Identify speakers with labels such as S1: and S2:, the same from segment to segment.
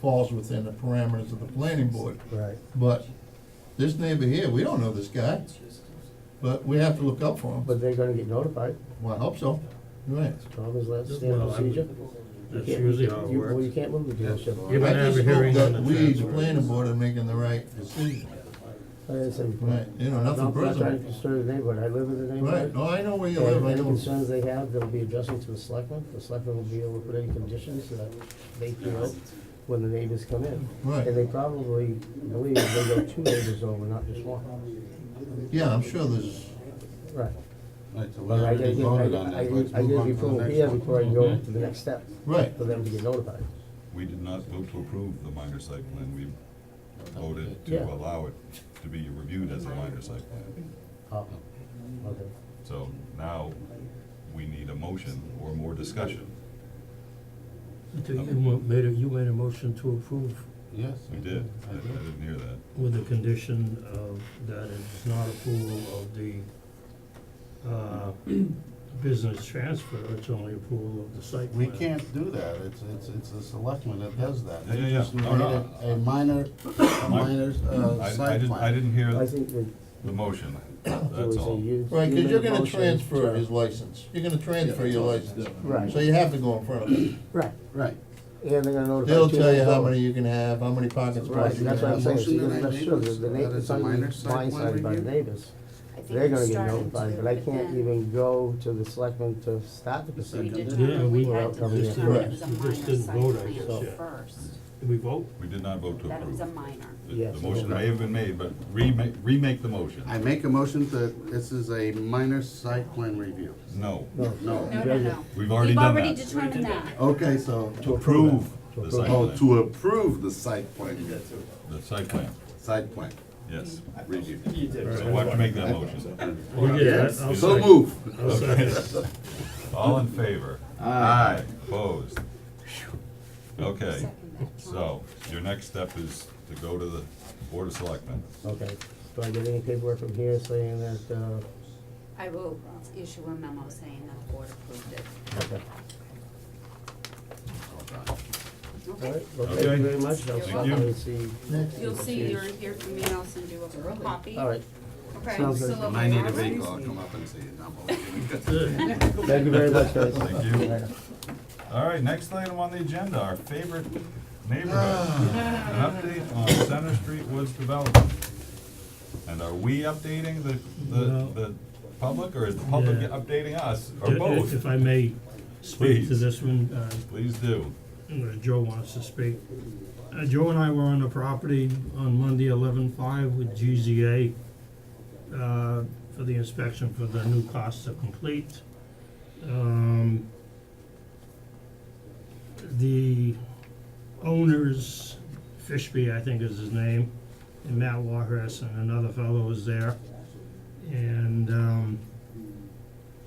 S1: falls within the parameters of the planning board.
S2: Right.
S1: But this neighbor here, we don't know this guy, but we have to look up for him.
S2: But they're gonna get notified,
S1: Well, I hope so. Right.
S2: Tom is last stand
S3: Well, I would-
S2: procedure.
S3: That's
S2: Yeah,
S3: usually how it
S2: you- Well, you
S3: works.
S2: can't move the dealership.
S3: You're
S1: I
S3: gonna have
S1: just
S3: a hearing
S1: hope
S3: on
S1: that
S3: the
S1: we, the
S3: transfer.
S1: planning board, are making the right decision.
S2: I understand.
S1: Right, you know,
S2: I'm
S1: nothing
S2: not trying to
S1: personal.
S2: disturb the neighborhood, I live in the
S1: Right,
S2: neighborhood.
S1: no, I know where you live,
S2: And
S1: I
S2: any
S1: know.
S2: concerns they have, they'll be addressing to the selectmen, the selectmen will be able to put any conditions that they feel when the neighbors come in.
S1: Right.
S2: And they probably believe they go two neighbors over, not just one.
S1: Yeah, I'm sure there's,
S2: Right.
S4: Right, so we
S2: But I gotta
S4: already
S2: get,
S4: voted
S2: I-
S4: on
S2: I, I
S4: that, let's
S2: I
S4: move
S2: get the
S4: on to
S2: approval
S4: the
S2: here
S4: next one.
S2: before I go to the next step,
S1: right,
S2: for them to get notified.
S5: We did not vote to approve the minor site plan, we voted
S2: Yeah.
S5: to allow it to be reviewed as a minor site plan.
S2: Oh, okay.
S5: So now, we need a motion or more discussion.
S3: You mo- made a, you made a motion to approve
S4: Yes.
S5: We did, I I didn't hear that.
S3: with the condition of that it is not approval of the, uh, business transfer, it's only approval of the site
S4: We
S3: plan.
S4: can't do that, it's, it's, it's the selectmen that does that. They
S5: Yeah, yeah,
S4: just
S5: yeah.
S4: made
S5: No, no.
S4: it a minor, a minor, uh,
S5: I, I
S4: site
S5: didn't, I
S4: plan.
S5: didn't hear
S2: I think that
S5: the motion,
S2: there
S5: that's
S2: was a
S5: all.
S2: you.
S1: right,
S2: you
S1: because you're
S2: made a
S1: gonna
S2: motion
S1: transfer
S2: to-
S1: his license, you're gonna transfer your license.
S2: Right.
S1: So you have to go in front of him.
S2: Right,
S4: Right.
S2: and they're gonna notify
S1: They'll
S2: two
S1: tell you
S2: neighbors
S1: how
S2: over.
S1: many you can have, how many parking
S2: Right,
S1: spots you can
S2: that's what I'm
S1: have.
S2: saying, so
S4: Motion
S2: you're
S4: that I
S2: gonna make
S4: made
S2: sure
S4: was
S2: that the
S4: that
S2: neighbors,
S4: it's a minor site plan
S2: blindsided by the
S4: review?
S2: neighbors.
S6: I think
S2: They're
S6: we
S2: gonna get
S6: started
S2: notified,
S6: to,
S2: but I can't
S6: then
S2: even go to the selectmen to start the
S6: We
S2: procedure.
S3: Yeah,
S6: determined, we
S3: we-
S6: had to
S2: Right.
S6: determine it was a
S3: We
S6: minor
S3: just didn't
S6: site
S3: vote, I
S6: plan
S3: guess, yeah.
S6: first,
S3: Did we vote?
S5: We did not vote to
S6: that it was
S5: approve.
S6: a minor.
S5: The-
S2: Yes,
S5: The
S2: it
S5: motion
S2: was.
S5: may have been made, but remake, remake the motion.
S4: I make a motion that this is a minor site plan review.
S5: No,
S2: No,
S4: No.
S6: No, no, no.
S5: We've already done
S6: We've already
S5: that.
S6: determined that.
S4: Okay, so,
S5: to approve the
S2: approve.
S5: site
S4: oh,
S5: plan,
S4: to approve the site plan,
S5: the site plan,
S4: site plan
S5: yes.
S4: review.
S5: So why don't you make that motion?
S3: You did, I-
S4: Yes,
S3: I'll
S4: so
S3: second.
S4: move.
S3: I'll second.
S5: All in favor? Aye. Opposed? Okay,
S6: Second that.
S5: so your next step is to go to the Board of Selectmen.
S2: Okay, do I get any paperwork from here saying that, uh,
S6: I will issue a memo saying that the board approved it.
S2: okay, all
S6: Okay.
S2: right, well, thank
S5: Okay.
S2: you very much, I'll
S6: You're
S2: stop
S5: welcome.
S2: and see.
S6: You'll see your, your, me, I'll send you a copy.
S2: All right,
S6: Okay.
S2: Sounds good.
S6: so-
S4: When I need a vehicle, I'll come up and see it. No, I'm only kidding.
S2: thank you very much, guys.
S5: Thank you. All right, next item on the agenda, our favorite neighborhood, an update on Center Street Woods Development. And are we updating the, the,
S3: No.
S5: the public, or is the public
S3: Yeah.
S5: updating us, or
S3: If-
S5: both?
S3: If I may speak to
S5: Please.
S3: this one, uh,
S5: Please do.
S3: Uh, Joe wants to speak. Uh, Joe and I were on the property on Monday, eleven-five with GZA, uh, for the inspection for the new cost to complete. Um, the owners, Fishby, I think is his name, and Matt Warhurst and another fellow was there. And, um,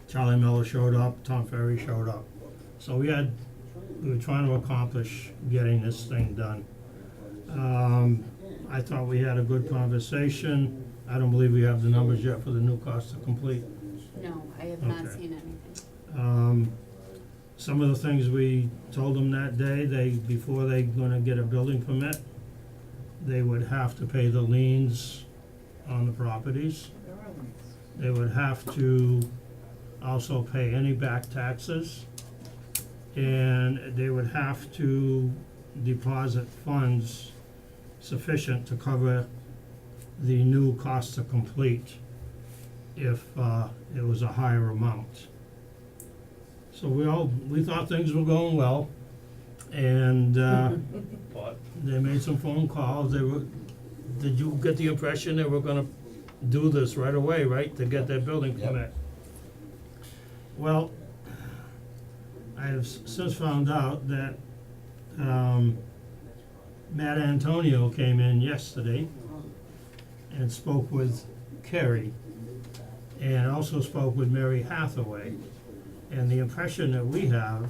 S3: Charlie Miller showed up, Tom Ferry showed up. So we had we were trying to accomplish getting this thing done. Um, I thought we had a good conversation. I don't believe we have the numbers yet for the new cost to complete.
S6: No, I have not
S3: Okay.
S6: seen anything.
S3: Um, some of the things we told them that day, they, before they gonna get a building permit, they would have to pay the liens on the properties. They would have to also pay any back taxes. And they would have to deposit funds sufficient to cover the new cost to complete if, uh, it was a higher amount. So we all, we thought things were going well, and, uh, they made some phone calls, they were, did you get the impression they were gonna do this right away, right, to get that building
S4: Yep.
S3: permit? Well, I have s- since found out that, um, Matt Antonio came in yesterday and spoke with Kerry, and also spoke with Mary Hathaway. And the impression that we have,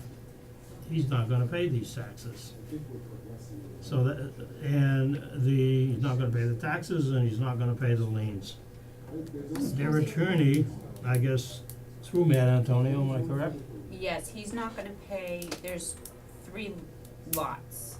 S3: he's not gonna pay these taxes. So that, and the, he's not gonna pay the taxes and he's not gonna pay the liens. Their attorney, I guess, through Matt Antonio, am I correct?
S6: Yes, he's not gonna pay, there's three lots.